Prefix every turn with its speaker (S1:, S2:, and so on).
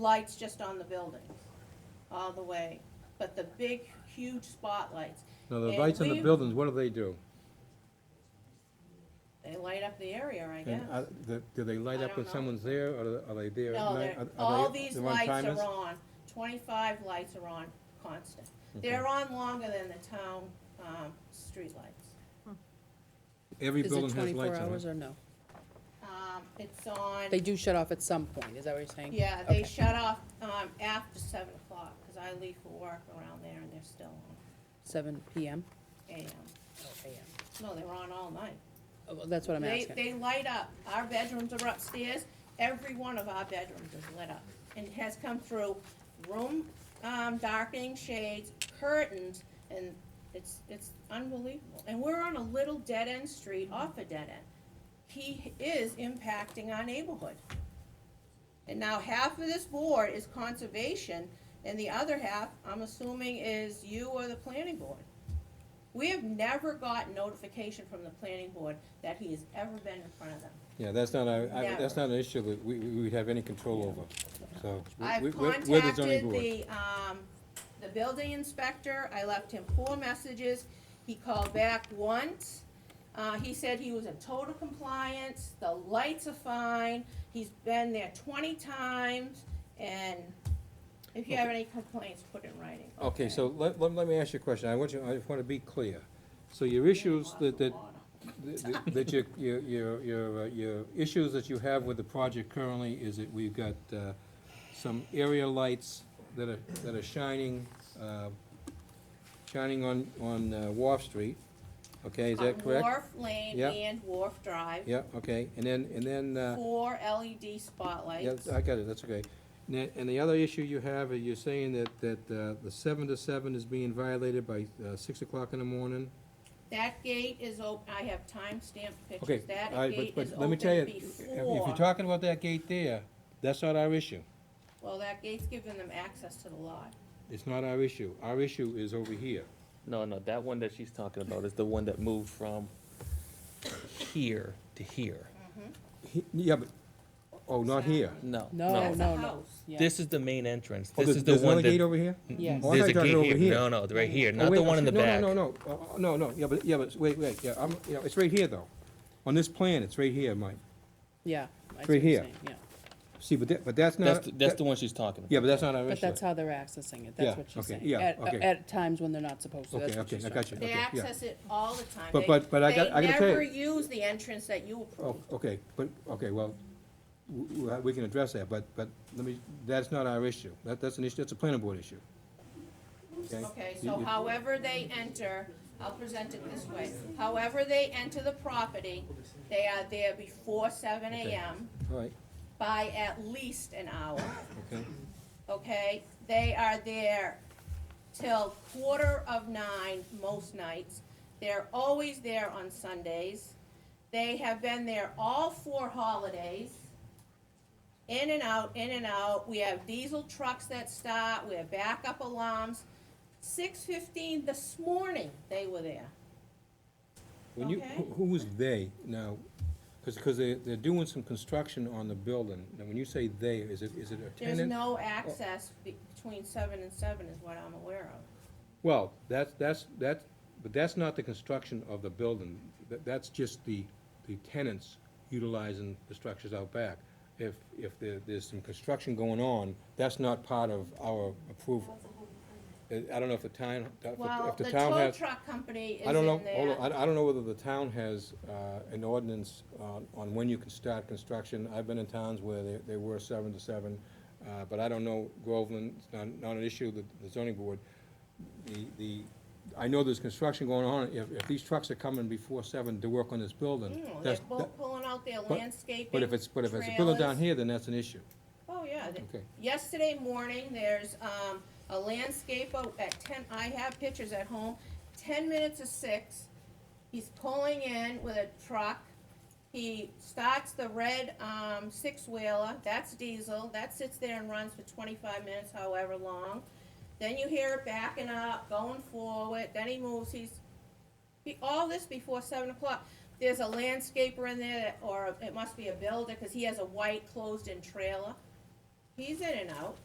S1: lights just on the building, all the way, but the big, huge spotlights,
S2: Now, the
S1: And
S2: lights in the
S1: we-
S2: buildings, what do they do?
S1: they light up the area, I guess.
S2: And are the- uh, do they light
S1: I
S2: up
S1: don't
S2: when
S1: know.
S2: someone's there, or are they there at
S1: No,
S2: night?
S1: they're,
S2: Are- are
S1: all
S2: they-
S1: these
S2: they're
S1: lights
S2: one-timers?
S1: are on, twenty-five lights are on constant. They're on longer than the town, um, streetlights.
S2: Every
S3: Is it
S2: building has
S3: 24
S2: lights on
S3: hours
S2: it.
S3: or no?
S1: Um, it's on,
S3: They do shut off at some point, is that what you're saying?
S1: yeah, they
S3: Okay.
S1: shut off, um, after seven o'clock, cause I leave for work around there and they're still on
S3: Seven PM?
S1: AM.
S3: Oh, AM.
S1: No, they were on all night.
S3: Oh, well, That's what I'm
S1: They,
S3: asking.
S1: they light up. Our bedrooms are upstairs. Every one of our bedrooms is lit up. And it has come through room, um, darkening shades, curtains, and it's, it's unbelievable. And we're on a little dead-end street off a dead end. He is impacting our neighborhood. And now half of this board is conservation, and the other half, I'm assuming, is you or the planning board. We have never got notification from the planning board that he has ever been in front of them.
S2: Yeah, that's not, a- I-
S1: Never.
S2: that's not an issue that we, we would have any control over, so. we-
S1: I've
S2: we- we're- we're the zoning
S1: contacted
S2: board.
S1: the, um, the building inspector, I left him four messages, he called back once. Uh, he said he was in total compliance, the lights are fine, he's been there twenty times, and if you have any complaints, put it in writing.
S2: Okay, so let, let let me ask you a question, I want you, I just want to be clear. So your issues that, that, that- that your, your, your, your, uh, your issues that you have with the project currently is that we've got, uh, some area lights that are, that are shining, uh, shining on, on uh, Wharf Street, okay, is that
S1: On
S2: correct?
S1: Wharf Lane
S2: Yep.
S1: and Wharf Drive,
S2: Yeah, okay, and then, and then, uh,
S1: four LED
S2: yeah,
S1: spotlights.
S2: I got it, that's okay. And the- And the other issue you have, are you're saying that, that, uh, the seven to seven is being violated by, uh, six o'clock in the morning?
S1: That gate is op, I have timestamped
S2: Okay,
S1: pictures,
S2: all
S1: that
S2: right,
S1: gate
S2: but,
S1: is
S2: but let me tell you,
S1: open
S2: if you're
S1: before,
S2: talking about that gate there, that's not our issue.
S1: well, that gate's giving them access to the lot.
S2: It's not our issue. Our issue is over here.
S4: No, no, that one that she's talking about is the one that moved from here to here.
S2: He- Yeah, but, oh, not here.
S4: No.
S3: No,
S1: That's a
S3: no, no.
S1: house.
S3: Yeah.
S4: This is the main entrance.
S2: Oh,
S4: This is the
S2: there's another
S4: one
S2: gate
S4: that.
S2: over here?
S3: Yes.
S2: Oh, I thought
S4: There's
S2: you
S4: a
S2: thought it
S4: gate
S2: over
S4: here.
S2: here.
S4: No, no, right here,
S2: Oh,
S4: not
S2: wait,
S4: the
S2: no,
S4: one in the
S2: no,
S4: back.
S2: No, no, no, Uh, uh, no, no, yeah, but, yeah, but, wait, wait, yeah, I'm, yeah, it's right here though. On this plan, it's right here, Mike.
S3: Yeah. I see
S2: Right
S3: what you're
S2: here.
S3: saying, Yeah,
S2: See, but that, but that's
S4: That's,
S2: not.
S4: the- that's
S2: that-
S4: the one she's talking about.
S2: Yeah, but that's not our issue.
S3: but that's how they're accessing it,
S2: Yeah,
S3: that's what she's
S2: okay,
S3: saying.
S2: yeah,
S3: At-
S2: okay.
S3: At times when they're not supposed to, that's
S2: Okay,
S3: what
S2: okay,
S3: she's
S2: I
S3: saying.
S2: got you,
S1: They
S2: okay, yeah.
S1: access it all the time.
S2: But-
S1: They-
S2: but- but I got- I gotta tell
S1: They
S2: you-
S1: never use the entrance that you
S2: Oh,
S1: approve.
S2: okay, but, okay, well, w- w- we can address that, but, but let me, that's not our issue. That, that's an issue, that's a planning board issue.
S1: Okay,
S2: You-
S1: so
S2: you-
S1: however they enter, I'll present it this way, however they enter the property, they are there before seven
S2: Okay.
S1: AM
S2: All right,
S1: by at least an hour.
S2: okay.
S1: okay? They are there till quarter of nine most nights. They're always there on Sundays. They have been there all four holidays. In and out, in and out. We have diesel trucks that start, we have backup alarms. Six fifteen this morning, they were there.
S2: When you,
S1: Okay.
S2: who who was "they" now? Because, because they, they're doing some construction on the building. Now, when you say "they," is it, is it a
S1: There's
S2: tenant?
S1: no access be- between seven and seven is what I'm aware of.
S2: Well, that's, that's, that's, but that's not the construction of the building. That, that's just the, the tenants utilizing the structures out back. If, if there, there's some construction going on, that's not part of our approval. Uh, I don't know if the town, if the-
S1: Well,
S2: if
S1: the
S2: the town
S1: tow
S2: has.
S1: truck company is in there.
S2: I don't know, hold on, I, I don't know whether the town has, uh, an ordinance on, on when you can start construction. I've been in towns where they, they were seven to seven, uh, but I don't know, Groveland, it's not, not an issue, the, the zoning board. The, the, I know there's construction going on, if, if these trucks are coming before seven to work on this building,
S1: Mm, They're
S2: that's, that-
S1: both pulling out their
S2: but-
S1: landscaping.
S2: but if it's, but if it's a building down
S1: trailers.
S2: here, then that's an issue.
S1: Oh, yeah. they-
S2: Okay.
S1: Yesterday morning, there's, um, a landscaper at ten, I have pictures at home, ten minutes of six. He's pulling in with a truck. He starts the red, um, six-wheeler, that's diesel, that sits there and runs for twenty-five minutes, however long. Then you hear it backing up, going forward, then he moves, he's, be- all this before seven o'clock. There's a landscaper in there, that- or it must be a builder, because he has a white closed-in trailer. He's in and out.